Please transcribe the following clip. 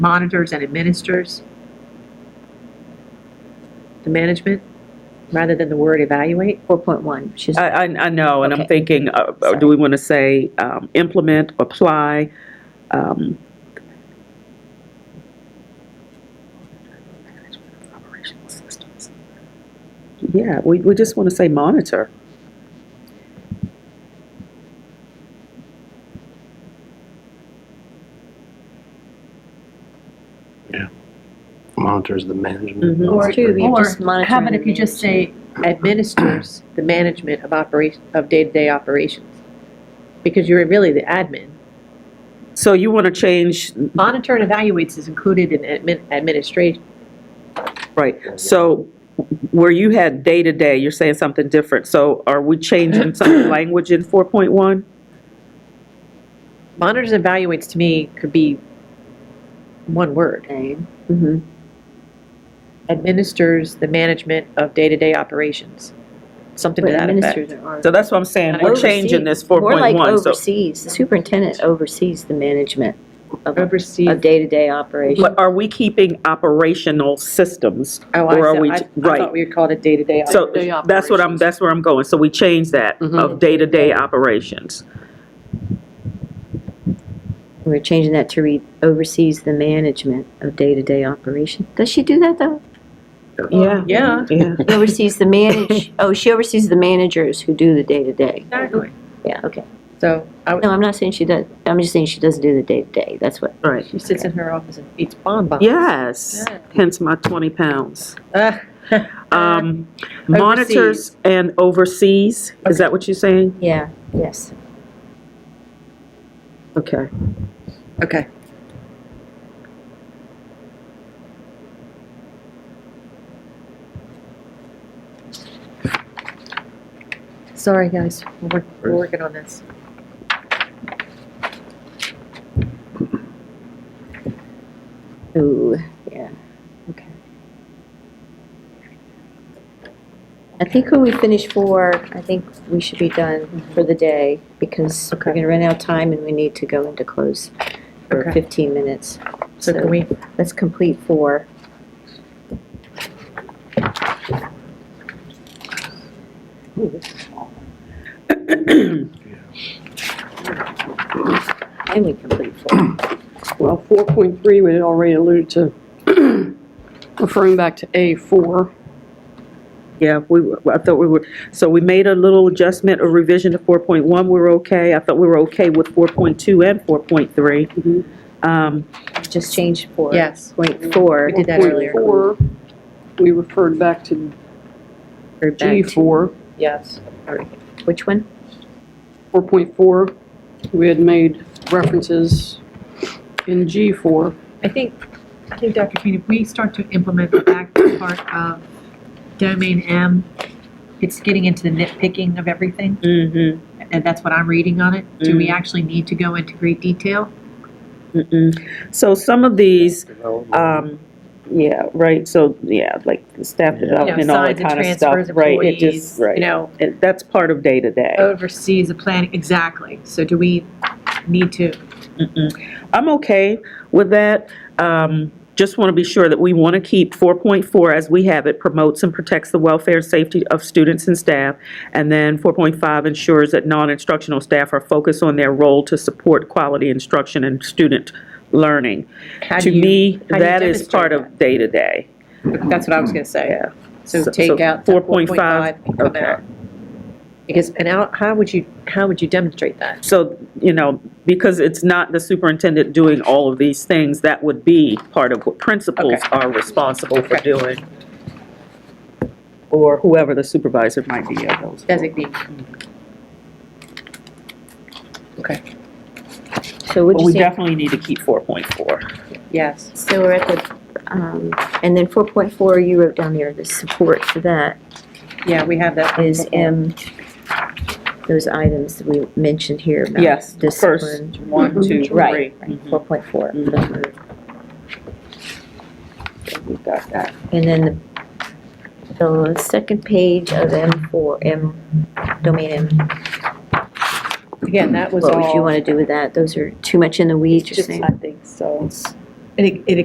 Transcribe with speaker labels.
Speaker 1: monitors and administers the management, rather than the word evaluate?
Speaker 2: 4.1, she's,
Speaker 3: Uh,
Speaker 4: I, I, I know, and I'm
Speaker 2: Okay.
Speaker 4: thinking, uh, uh, do we want to say um, implement, apply? um, Yeah, we, we just want to say monitor.
Speaker 5: monitors the management.
Speaker 4: Mhm.
Speaker 5: of
Speaker 2: Or-
Speaker 5: operations.
Speaker 2: You
Speaker 3: Or
Speaker 2: just monitor
Speaker 3: how about
Speaker 2: and
Speaker 3: if you just say,
Speaker 1: Administers the management of operation, of day-to-day operations, because you're really the admin.
Speaker 4: So you want to change,
Speaker 1: Monitor and evaluates is included in admin, administration.
Speaker 4: right, so where you had day-to-day, you're saying something different. So are we changing some of the language in 4.1?
Speaker 1: Monitors and evaluates to me could be one word.
Speaker 4: Mm-hmm.
Speaker 1: Administers the management of day-to-day operations, something to
Speaker 2: but
Speaker 1: that effect.
Speaker 2: administers are.
Speaker 4: So that's what I'm saying, we're changing this 4.1.
Speaker 2: More like
Speaker 4: so-
Speaker 2: oversees, the superintendent oversees the management of
Speaker 1: Oversees.
Speaker 2: of day-to-day operations.
Speaker 4: But are we keeping operational systems?
Speaker 1: Oh,
Speaker 4: or are
Speaker 1: I,
Speaker 4: we-
Speaker 1: said- I- I
Speaker 4: right.
Speaker 1: thought we called it day-to-day.
Speaker 4: So
Speaker 1: day
Speaker 4: that's what I'm,
Speaker 1: operations.
Speaker 4: that's where I'm going. So we change that of day-to-day operations.
Speaker 2: We're changing that to read oversees the management of day-to-day operation. Does she do that, though?
Speaker 4: Yeah.
Speaker 1: Yeah,
Speaker 4: Yeah.
Speaker 2: She Oversees the manage, oh, she oversees the managers who do the day-to-day.
Speaker 1: exactly.
Speaker 2: Yeah, okay.
Speaker 1: So I, would-
Speaker 2: No, I'm not saying she does, I'm just saying she doesn't do the day-to-day, that's what.
Speaker 4: Right.
Speaker 1: she sits in her office and eats bonbons.
Speaker 4: Yes, hence my 20 pounds.
Speaker 1: Ah,
Speaker 4: Um, Monitors and overseas, is that what you're saying?
Speaker 2: Yeah, yes.
Speaker 4: Okay.
Speaker 1: Okay. Sorry, guys, we're, work- we're working on this.
Speaker 2: Ooh, yeah, okay. I think when we finish four, I think we should be done for the day, because we're
Speaker 1: Okay.
Speaker 2: gonna run out of time and we need to go into close for
Speaker 1: Okay.
Speaker 2: 15 minutes.
Speaker 1: So can we,
Speaker 2: Let's complete four. And we complete four.
Speaker 6: Well, 4.3, we had already alluded to, referring back to A4.
Speaker 4: Yeah, we, were- I thought we were, so we made a little adjustment or revision to 4.1, we were okay. I thought we were okay with 4.2 and 4.3.
Speaker 6: Mhm.
Speaker 4: Um,
Speaker 2: Just change four.
Speaker 1: yes,
Speaker 2: Point four.
Speaker 1: We did that earlier.
Speaker 6: 4.4, we referred back to
Speaker 1: or back,
Speaker 6: G4.
Speaker 1: yes.
Speaker 2: Which one?
Speaker 6: 4.4, we had made references in G4.
Speaker 3: I think, I think, Dr. Keene, if we start to implement the back part of domain M, it's getting into the nitpicking of everything,
Speaker 4: mhm,
Speaker 3: and that's what I'm reading on it. Do
Speaker 4: Mm.
Speaker 3: we actually need to go into great detail?
Speaker 4: mm-mm. So some of these,
Speaker 5: Development.
Speaker 4: Um, yeah, right, so, yeah, like the staff
Speaker 1: You
Speaker 5: Yeah.
Speaker 1: know,
Speaker 4: development, all that
Speaker 1: signs and
Speaker 4: kind of stuff,
Speaker 1: transfers,
Speaker 4: right, it just,
Speaker 1: employees, you
Speaker 4: right.
Speaker 1: know, Oh.
Speaker 4: It- That's part of day-to-day.
Speaker 3: Oversees the planning, exactly. So do we need to?
Speaker 4: Mm-mm. I'm okay with that, um, just want to be sure that we want to keep four point four as we have it, promotes and protects the welfare and safety of students and staff, and then four point five ensures that non-instructional staff are focused on their role to support quality instruction and student learning.
Speaker 1: how
Speaker 4: To
Speaker 1: do you-
Speaker 4: me,
Speaker 1: how do you
Speaker 4: that is
Speaker 1: demonstrate
Speaker 4: part
Speaker 1: that?
Speaker 4: of day-to-day,
Speaker 1: That's what I was gonna say.
Speaker 4: yeah.
Speaker 1: So
Speaker 4: So-
Speaker 1: take
Speaker 4: so
Speaker 1: out four point
Speaker 4: 4.5,
Speaker 1: five and come
Speaker 4: okay.
Speaker 1: out. Because, and how, how would you, how would you demonstrate that?
Speaker 4: So, you know, because it's not the superintendent doing all of these things, that would be part of what principals
Speaker 1: Okay.
Speaker 4: are responsible for
Speaker 1: Okay.
Speaker 4: doing. Or whoever the supervisor might be of those.
Speaker 1: Designate.
Speaker 2: So
Speaker 4: But
Speaker 2: what'd you
Speaker 4: we
Speaker 2: say?
Speaker 4: definitely need to keep 4.4.
Speaker 1: Yes.
Speaker 2: So we're at the, um, and then 4.4, you wrote down there, the support for that
Speaker 1: Yeah, we have that.
Speaker 2: is M, those items that we mentioned here about
Speaker 4: Yes, the first
Speaker 2: discipline.
Speaker 4: One,
Speaker 1: Mm-hmm.
Speaker 4: two, three.
Speaker 2: Right,
Speaker 4: Mhm.
Speaker 2: 4.4.
Speaker 4: We got that.
Speaker 2: And then the, the second page of M4, M, domain M,
Speaker 1: Again, that was
Speaker 2: what would you
Speaker 1: all.
Speaker 2: want to do with that? Those are too much in the weeds, you're
Speaker 1: Just,
Speaker 2: saying?
Speaker 1: I think so. And it, it